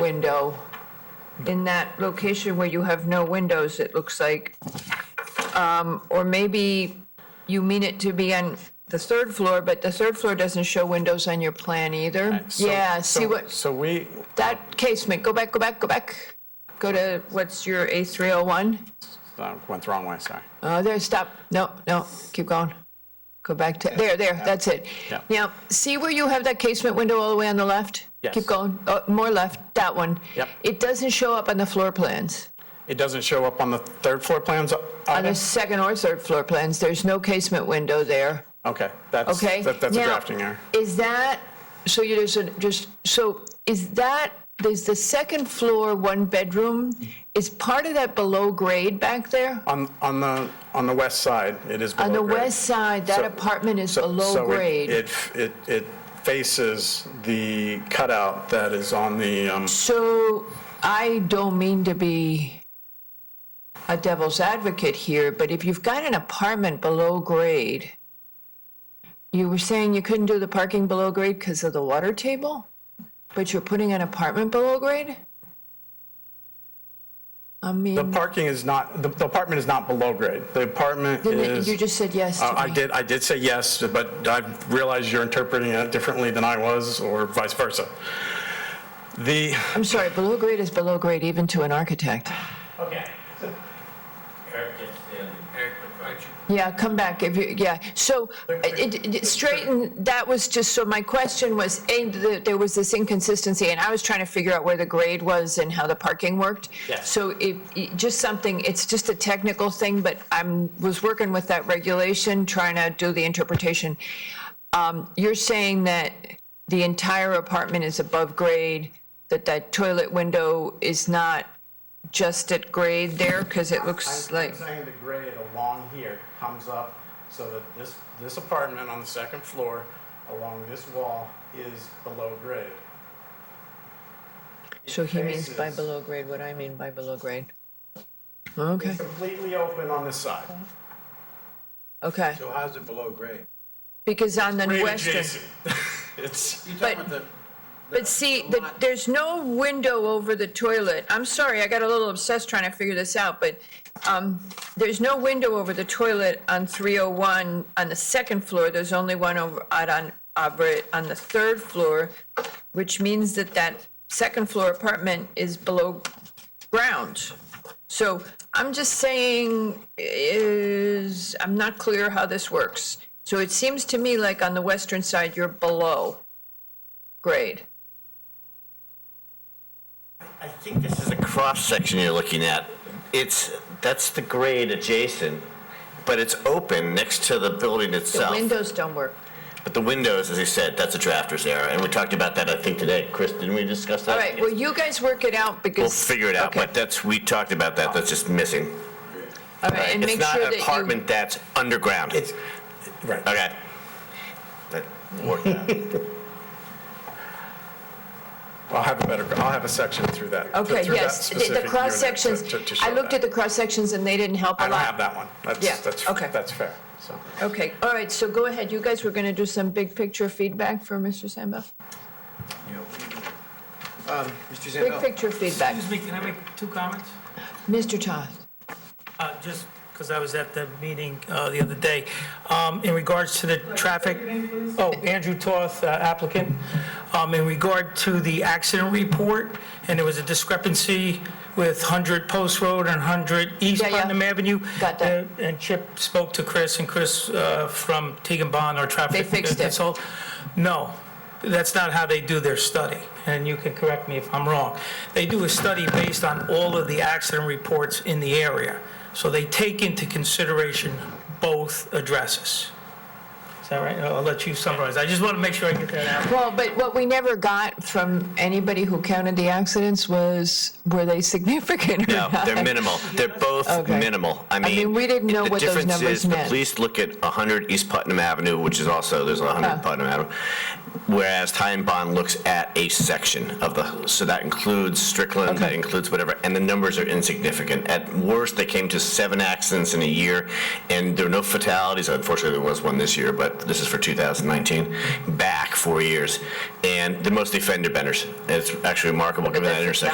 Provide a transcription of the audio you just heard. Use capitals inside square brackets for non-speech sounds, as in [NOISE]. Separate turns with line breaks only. window in that location where you have no windows, it looks like. Um, Or maybe you mean it to be on the third floor, but the third floor doesn't show windows on your plan either.
So-
Yeah, see
so-
what,
So we,
that casement, go back, go back, go back. Go to, what's your A301?
uh, went the wrong way, sorry.
Oh, there, stop. No, no, keep going. Go back to, there, there, that's it.
Yeah.
Now, see where you have that casement window all the way on the left?
Yes.
Keep going, oh, more left, that one.
Yep.
It doesn't show up on the floor plans.
It doesn't show up on the third floor plans? uh,
On the
either?
second or third floor plans, there's no casement window there,
Okay, that's,
okay?
that- that's a
Now,
drafting error.
Is that, so you just, just, so is that, is the second floor one bedroom, is part of that below grade back there?
On, on the, on the west side, it is below
On the
grade.
west side, that
So-
apartment is
so-
below
so it-
grade.
It, it, it faces the cutout that is on the, um,
So I don't mean to be a devil's advocate here, but if you've got an apartment below grade, you were saying you couldn't do the parking below grade because of the water table, but you're putting an apartment below grade? I
the
mean,
parking is not, the the apartment is not below grade. The apartment
then it-
is.
you just said yes to
Uh, I
me.
did, I did say yes, but I realize you're interpreting it differently than I was, or vice versa. The,
I'm sorry, below grade is below grade even to an architect.
Okay. Eric gets the, Eric, why don't you
Yeah, come back if you, yeah. So it, it- straighten, that was just, so my question was, A, the- there was this inconsistency and I was trying to figure out where the grade was and how the parking worked.
Yes.
So it, it- just something, it's just a technical thing, but I'm, was working with that regulation, trying to do the interpretation. Um, You're saying that the entire apartment is above grade, that that toilet window is not just at grade there? Because it looks like.
I'm saying the grade along here comes up so that this, this apartment on the second floor along this wall is below grade.
So he means by
Faces.
below grade what I mean by below grade. Okay,
Completely open on this side.
okay,
So how's it below grade?
because on the
Grade
western,
adjacent. [LAUGHS] It's,
You're
But-
talking about the,
but see, the- there's no window over the toilet. I'm sorry, I got a little obsessed trying to figure this out, but um, there's no window over the toilet on 301 on the second floor. There's only one over, out on, over it on the third floor, which means that that second floor apartment is below ground. So I'm just saying is, I'm not clear how this works. So it seems to me like on the western side, you're below grade.
I think this is a cross-section you're looking at. It's, that's the grade adjacent, but it's open next to the building
The
itself.
windows don't work.
But the windows, as you said, that's a drafter's error, and we talked about that, I think, today. Chris, didn't we discuss that?
All right, well, you guys work it out because.
We'll figure it out,
Okay.
but that's, we talked about that, that's just missing.
All right, and
It's
make
not
sure that
an
you.
apartment that's underground.
it's, right.
Okay. That worked out.
I'll have a better, I'll have a section through that.
Okay,
through that
yes, the-
specific
the
unit
cross sections,
to- to- to
I
show
looked
that.
at the cross sections and they didn't help a
I
lot.
don't have that one.
Yeah,
That's, that's,
okay.
that's fair, so.
Okay, all right, so go ahead, you guys were going to do some big picture feedback for Mr. Samba.
you know, um, Mr.
Big
Zambell,
picture feedback.
Excuse me, can I make two comments?
Mr. Toth.
Uh, Just because I was at the meeting uh, the other day, Um, in regards to the traffic. Oh, Andrew Toth, uh, applicant. Um, In regard to the accident report, and there was a discrepancy with 100 Post Road and 100 East
Yeah, yeah.
Putnam Avenue.
Got that.
Uh, And Chip spoke to Chris, and Chris uh, from Teagan Bond, our traffic.
They fixed it.
consult- No, that's not how they do their study, and you can correct me if I'm wrong. They do a study based on all of the accident reports in the area, so they take into consideration both addresses. Is that right? I'll let you summarize. I just want to make sure I get that out.
Well, but what we never got from anybody who counted the accidents was, were they significant or
No,
not?
[LAUGHS] they're minimal. They're both
Okay.
minimal. I mean,
mean, we didn't know
the
what those
difference
numbers
is the
meant.
police look at 100 East Putnam Avenue, which is also there's 100
Huh.
Putnam Avenue, whereas Ty and Bond looks at a section of the. So that includes Strickland, that
Okay.
includes whatever, and the numbers are insignificant. At worst, they came to seven accidents in a year, and there were no fatalities. Unfortunately, there was one this year, but this is for 2019, back four years, and the mostly fender benders. It's actually remarkable given that
that's a
intersection.